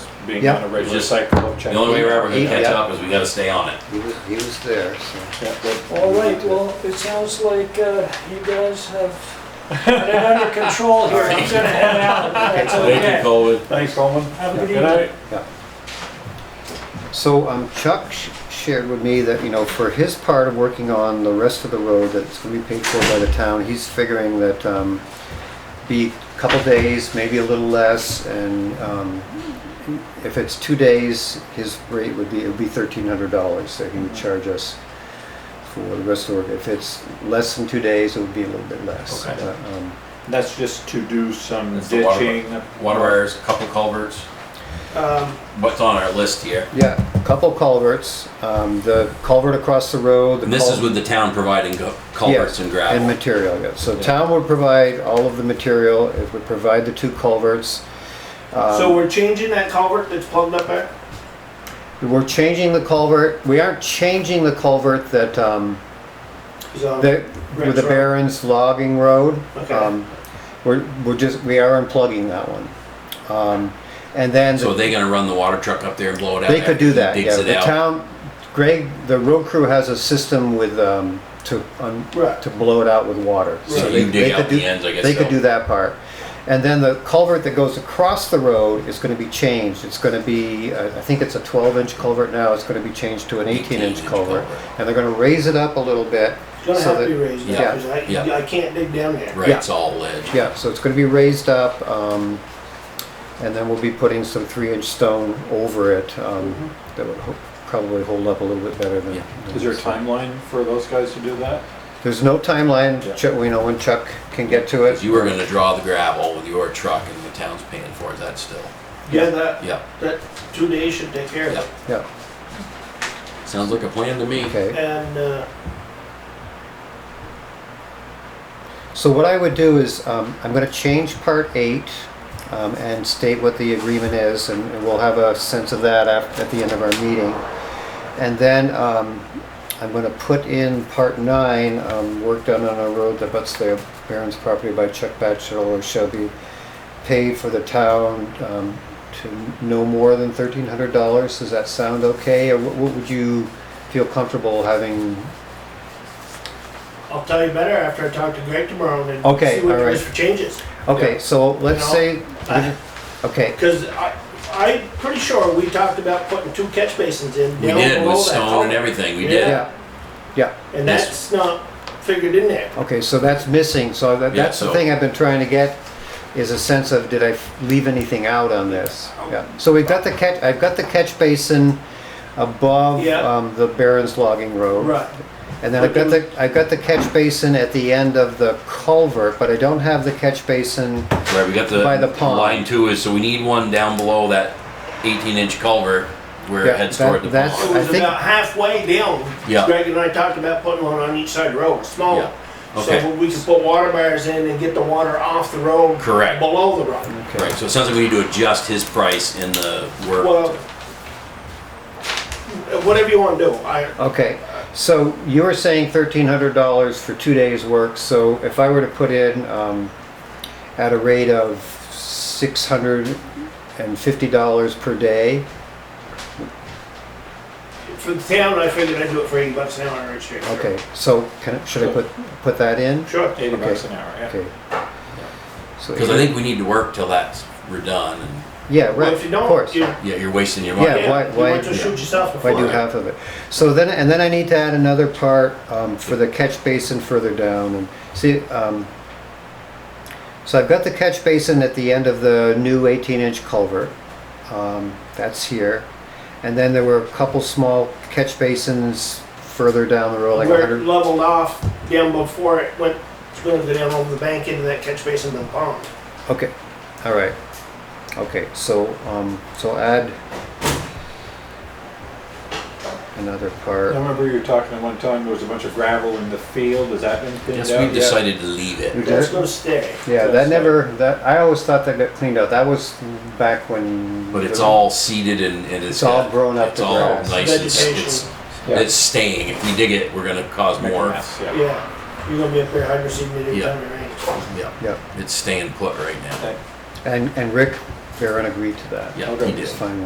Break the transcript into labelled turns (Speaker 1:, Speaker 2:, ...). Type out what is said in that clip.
Speaker 1: being
Speaker 2: Yeah.
Speaker 1: on a regular cycle of checking.
Speaker 3: The only way we're ever gonna
Speaker 2: Yeah.
Speaker 3: catch up is we gotta stay on it.
Speaker 4: He was, he was there, so.
Speaker 1: Yeah, but-
Speaker 5: All right, well, it sounds like uh, you guys have got it under control here. I'm gonna head out. That's
Speaker 3: Thank
Speaker 5: okay.
Speaker 3: you, Colwood.
Speaker 1: Thanks, Coleman.
Speaker 5: Have a good
Speaker 1: Good night.
Speaker 5: evening.
Speaker 4: So um, Chuck sh- shared with me that, you know, for his part of working on the rest of the road that's gonna be paid for by the town, he's figuring that um, be a couple days, maybe a little less, and um, if it's two days, his rate would be, it would be thirteen hundred dollars that he would
Speaker 5: Mm-hmm.
Speaker 4: charge us for the rest of the work. If it's less than two days, it would be a little bit less.
Speaker 3: Okay.
Speaker 4: But, um,
Speaker 1: That's just to do some
Speaker 3: That's the water-
Speaker 1: ditching.
Speaker 3: Water wires, a couple culverts.
Speaker 5: Um,
Speaker 3: What's on our list here?
Speaker 4: Yeah, a couple culverts, um, the culvert across the road. the
Speaker 3: And this is
Speaker 4: cul-
Speaker 3: with the town providing go- culverts
Speaker 4: Yeah, And
Speaker 3: and gravel.
Speaker 4: material, yes. So town would provide all of the material, it would provide the two culverts.
Speaker 3: Um,
Speaker 4: Um,
Speaker 6: So we're changing that culvert that's plugged up there?
Speaker 4: We're changing the culvert, we aren't changing the culvert that, um,
Speaker 6: Is, um,
Speaker 4: that, with the
Speaker 6: Ranch Road.
Speaker 4: Barron's logging road.
Speaker 6: Okay.
Speaker 4: Um, We're, we're just, we are unplugging that one. Um, and then. the-
Speaker 3: So they gonna run the water truck up there and blow it out?
Speaker 4: They could
Speaker 3: after
Speaker 4: do
Speaker 3: he
Speaker 4: that,
Speaker 3: Digs
Speaker 4: yeah.
Speaker 3: it
Speaker 4: The
Speaker 3: out.
Speaker 4: town, Greg, the road crew has a system with, um, to, un-
Speaker 6: Right.
Speaker 4: to blow it out with water.
Speaker 3: So
Speaker 4: they-
Speaker 3: you
Speaker 4: they
Speaker 3: dig
Speaker 4: could
Speaker 3: out
Speaker 4: do-
Speaker 3: the ends, I guess.
Speaker 4: They could
Speaker 3: so.
Speaker 4: do that part. And then the culvert that goes across the road is gonna be changed. It's gonna be, uh, I think it's a twelve inch culvert now, it's gonna be changed to an eighteen
Speaker 3: 18-inch
Speaker 4: inch culvert.
Speaker 3: culvert.
Speaker 4: And they're gonna raise it up a little bit.
Speaker 6: It's gonna
Speaker 4: so
Speaker 6: have to
Speaker 4: that-
Speaker 6: be raised up,
Speaker 4: yeah,
Speaker 6: because I,
Speaker 3: yeah.
Speaker 6: I can't dig down there.
Speaker 3: Right,
Speaker 4: yeah.
Speaker 3: it's all ledge.
Speaker 4: Yeah, so it's gonna be raised up, um, and then we'll be putting some three inch stone over it, um, that would ho- probably hold up a little bit better than.
Speaker 3: Yeah.
Speaker 4: than
Speaker 1: Is there a
Speaker 4: this.
Speaker 1: timeline for those guys to do that?
Speaker 4: There's no timeline,
Speaker 1: Yeah.
Speaker 4: Chuck, we know when Chuck can get to
Speaker 3: Cause
Speaker 4: it.
Speaker 3: you were gonna draw the gravel with your truck and the town's paying for it, that's still,
Speaker 6: Yeah, that,
Speaker 3: yeah,
Speaker 6: that two days should take care of
Speaker 3: yeah.
Speaker 6: it.
Speaker 4: Yeah,
Speaker 3: Sounds like a plan to me.
Speaker 4: okay.
Speaker 6: And, uh,
Speaker 4: So what I would do is, um, I'm gonna change part eight, um, and state what the agreement is, and and we'll have a sense of that af- at the end of our meeting. And then, um, I'm gonna put in part nine, um, work done on a road that butts the Barron's property by Chuck Batchelor shall be paid for the town, um, to no more than thirteen hundred dollars. Does that sound okay, or what what would you feel comfortable having
Speaker 6: I'll tell you better after I talk to Greg tomorrow and
Speaker 4: Okay,
Speaker 6: see what
Speaker 4: all
Speaker 6: the
Speaker 4: right.
Speaker 6: list changes.
Speaker 4: Okay, so let's
Speaker 6: know,
Speaker 4: say,
Speaker 6: I-
Speaker 4: okay,
Speaker 6: Because I, I'm pretty sure we talked about putting two catch basins in.
Speaker 3: We
Speaker 6: down
Speaker 3: did
Speaker 6: below
Speaker 3: with
Speaker 6: that
Speaker 3: stone and
Speaker 6: culvert.
Speaker 3: everything, we
Speaker 6: Yeah.
Speaker 3: did.
Speaker 4: yeah, yeah,
Speaker 6: And
Speaker 3: Yes.
Speaker 6: that's not figured in there.
Speaker 4: okay, so that's missing, so that,
Speaker 3: Yeah,
Speaker 4: that's the
Speaker 3: so-
Speaker 4: thing I've been trying to get, is a sense of, did I leave anything out on this? Yeah, so we've got the catch, I've got the catch basin above,
Speaker 6: Yeah.
Speaker 4: um, the Barron's logging road. And then I've got the, I've got the catch basin at the end of the culvert, but I don't have the catch basin,
Speaker 3: Right, we got the.
Speaker 4: By the pond.
Speaker 3: Line two is, so we need one down below that eighteen inch culvert where
Speaker 4: Yeah,
Speaker 3: it heads toward the
Speaker 4: that- that's-
Speaker 3: pond.
Speaker 6: It
Speaker 4: I
Speaker 6: was
Speaker 4: think-
Speaker 6: about halfway down.
Speaker 3: Yeah.
Speaker 6: Greg and I talked about putting one on each side of the road, small.
Speaker 3: Yeah.
Speaker 6: one.
Speaker 3: Okay.
Speaker 6: So we can put water barriers in and get the water off the road.
Speaker 3: Correct.
Speaker 6: Below the road.
Speaker 3: Right, so it sounds like we need to adjust his price in the work.
Speaker 6: Well, whatever you wanna do, I,
Speaker 4: okay. So you were saying thirteen hundred dollars for two days' work, so if I were to put in, um, at a rate of six hundred and fifty dollars per day.
Speaker 6: for the town, I figured I'd do it for eighty bucks an hour each year.
Speaker 4: Okay, so can, I- should I put, put that in?
Speaker 6: Sure.
Speaker 1: Eighty
Speaker 4: Okay.
Speaker 1: bucks an hour, yeah.
Speaker 4: Okay. So,
Speaker 3: Cause I think we need to work till that's, we're done and,
Speaker 4: yeah,
Speaker 6: Well,
Speaker 4: right,
Speaker 6: if you
Speaker 4: of
Speaker 6: don't,
Speaker 4: course.
Speaker 6: you,
Speaker 3: yeah, you're wasting your
Speaker 4: Yeah,
Speaker 3: money.
Speaker 4: why-
Speaker 6: yeah, you
Speaker 4: why-
Speaker 6: might just shoot yourself in
Speaker 4: If I
Speaker 6: the
Speaker 4: do
Speaker 6: foot.
Speaker 4: half of it. So then, and then I need to add another part, um, for the catch basin further down and see, um, so I've got the catch basin at the end of the new eighteen inch culvert. Um, that's here. And then there were a couple small catch basins further down the road, like a
Speaker 6: Where it
Speaker 4: hundred,
Speaker 6: leveled off down before it went, it's gonna go down over the bank into that catch basin and the pond.
Speaker 4: okay, all right. Okay, so, um, so add another
Speaker 1: I
Speaker 4: part.
Speaker 1: remember you were talking at one time, there was a bunch of gravel in the field, has that been thinned out
Speaker 3: Yes,
Speaker 1: yet?
Speaker 3: we've decided to leave it.
Speaker 4: You
Speaker 6: That's
Speaker 4: did?
Speaker 6: gonna stay.
Speaker 4: Yeah,
Speaker 1: That's
Speaker 4: that
Speaker 1: it.
Speaker 4: never, that, I always thought that got cleaned out. That was back when.
Speaker 3: But it's
Speaker 4: the-
Speaker 3: all seeded and, and it's.
Speaker 4: It's all
Speaker 3: got-
Speaker 4: grown up
Speaker 3: It's
Speaker 4: to
Speaker 3: all
Speaker 4: grass.
Speaker 3: nice and s-
Speaker 6: Vegetation.
Speaker 3: it's,
Speaker 1: Yeah.
Speaker 3: it's staying. If we dig it, we're gonna cause
Speaker 1: Make a
Speaker 3: more.
Speaker 1: mess, yeah.
Speaker 6: Yeah, you're gonna be up there hydro seeding it every
Speaker 3: Yeah.
Speaker 6: time it rains.
Speaker 3: Yeah,
Speaker 4: Yeah,
Speaker 3: it's staying put right now.
Speaker 1: Okay.
Speaker 4: and, and Rick Barron agreed to that.
Speaker 3: Yeah,
Speaker 1: Okay.
Speaker 3: he
Speaker 4: It's
Speaker 3: did.
Speaker 4: fine.